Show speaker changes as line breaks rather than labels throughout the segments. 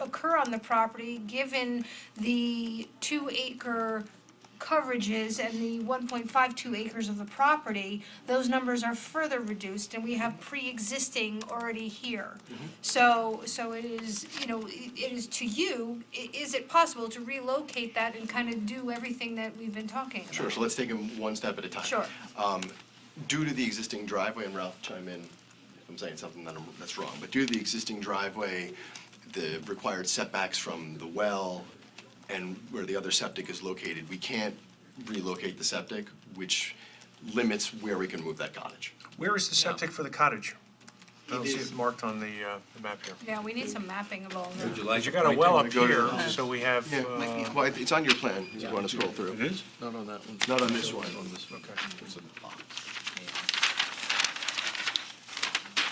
occur on the property, given the two acre coverages and the one point five two acres of the property, those numbers are further reduced and we have pre-existing already here. So, so it is, you know, i- it is to you, i- is it possible to relocate that and kind of do everything that we've been talking about?
Sure, so let's take them one step at a time.
Sure.
Um, Due to the existing driveway, and Ralph chime in if I'm saying something that I'm- that's wrong, but due to the existing driveway, the required setbacks from the well and where the other septic is located, we can't relocate the septic, which limits where we can move that cottage.
Where is the septic for the cottage? I don't see
is-
it marked on the, uh, the map here.
Yeah, we need some mapping of all
Would
that.
you like?
Because you got a
point
well
to-
up
go to
here,
the-
so we have,
Yeah,
uh,
well, it's on your plan, if you want to scroll through.
it is?
Not on that one. Not on this one. On this one.
Okay.
It's in the box. I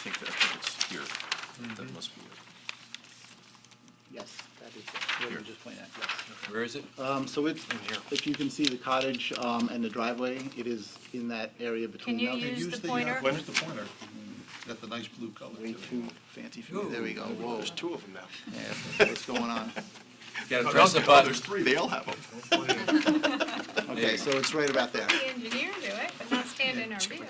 think that, I think it's here. That must be it.
Yes, that is it, what you just pointed out, yes.
Where is it?
Um, so it's,
here.
if you can see the cottage, um, and the driveway, it is in that area between
Can you
those.
use the
uh,
pointer?
Where's the pointer? Got the nice blue color.
Way
to it.
too fancy for me, there we go, whoa,
There's two of them now.
yeah, what's going on?
You gotta
No,
press the
no,
button.
There's three, they all have them.
Okay, so it's right about there.
The engineer do it, but not stand in our view.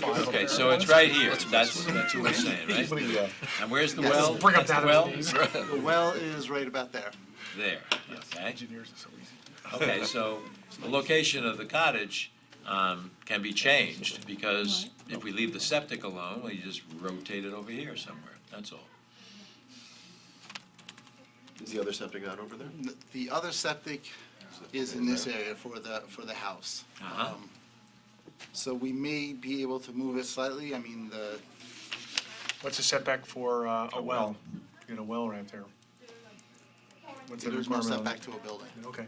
Okay, so it's right here. That's, that's what we're saying, right? And where's the well?
Bring up
That's
that
the well?
as
The well is right about there.
There, okay? Engineers are so easy. Okay, so the location of the cottage um, can be changed, because if we leave the septic alone, we just rotate it over here somewhere, that's all.
Is the other septic not over there?
N- The other septic is in this area for the, for the house.
Uh-huh.
Um, So we may be able to move it slightly, I mean, the,
what's the setback for uh, a well? You got a well right there. What's the
there's no
requirement on
setback
that?
to a building.
Okay.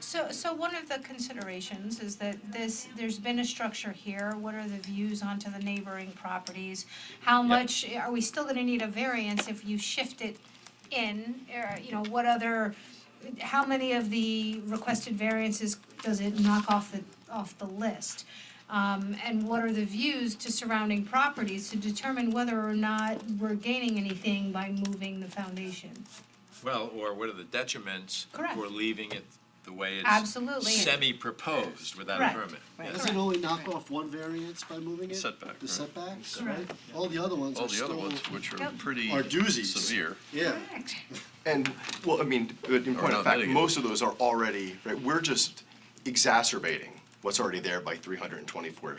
So, so one of the considerations is that this, there's been a structure here, what are the views onto the neighboring properties? How much, are we still gonna need a variance if you shift it in, or, you know, what other, how many of the requested variances does it knock off the, off the list? Um, and what are the views to surrounding properties to determine whether or not we're gaining anything by moving the foundation?
Well, or what are the detriments?
Correct.
For leaving it the way it's.
Absolutely.
Semi-proposed without a
Correct.
permit.
Doesn't it only knock off one variance by moving it?
Setback,
The
right.
setbacks,
Correct.
right? All the other ones
All
are
the
still.
other ones, which are
Yep.
pretty
Are doozies.
severe.
Yeah.
And, well, I mean, but in point of
not
fact,
mitigated.
most of those are already, right, we're just exacerbating what's already there by three hundred and twenty-four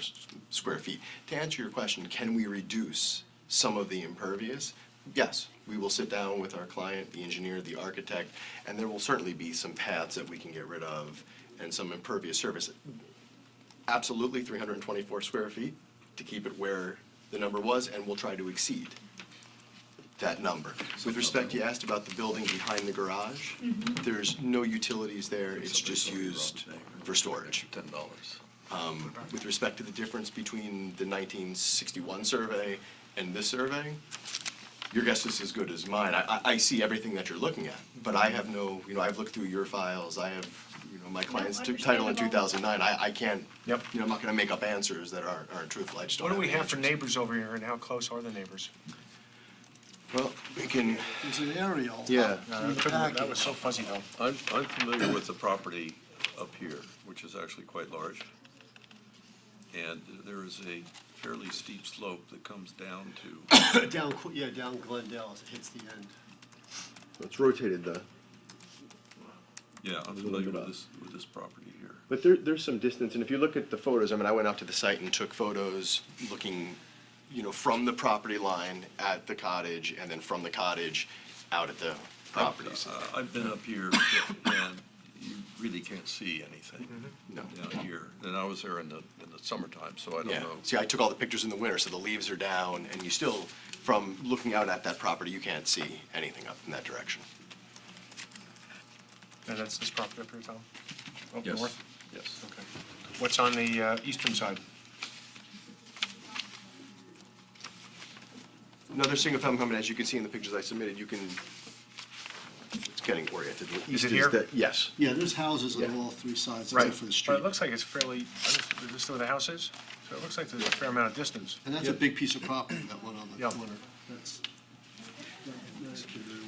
square feet. To answer your question, can we reduce some of the impervious? Yes, we will sit down with our client, the engineer, the architect, and there will certainly be some paths that we can get rid of and some impervious surface. Absolutely, three hundred and twenty-four square feet to keep it where the number was, and we'll try to exceed that number. With respect, you asked about the building behind the garage. There's no utilities there, it's just used for storage. Um,
Ten dollars.
With respect to the difference between the 1961 survey and this survey, your guess is as good as mine. I, I- I see everything that you're looking at, but I have no, you know, I've looked through your files, I have, you know, my client's t- title in
understandable.
2009. I, I can't, you know,
Yep.
I'm not going to make up answers that aren't aren't truthful, I just don't
What do
have
we
the
have for
answers.
neighbors over here and how close are the neighbors?
Well, we can,
There's an aerial.
Yeah.
Uh,
in the packet.
That was so fuzzy though.
I'm, I'm familiar with the property up here, which is actually quite large. And there is a fairly steep slope that comes down to,
Down, Qu- yeah, down Glendale as it hits the end.
it's rotated the,
yeah, I'm familiar with this, with this property here.
But there, there's some distance, and if you look at the photos, I mean, I went out to the site and took photos looking, you know, from the property line at the cottage, and then from the cottage out at the properties.
Uh, I've been up here and you really can't see anything
No.
down here. And I was there in the, in the summertime, so I don't
Yeah,
know.
see, I took all the pictures in the winter, so the leaves are down, and you still, from looking out at that property, you can't see anything up in that direction.
And that's this property up here, Tom? Up
Yes,
Oh, north?
Yes.
Okay. What's on the uh, eastern side?
Another single-family home, and as you can see in the pictures I submitted, you can, it's getting oriented. The east
it here?
the- Yes,
Yeah, there's houses on
Yeah.
all three sides
Right.
except for the
But
street.
it looks like it's fairly, is this where the house is? So it looks like there's a fair amount of distance.
And that's a big piece of property, that one on the
Yeah.
corner. That's. that- that could be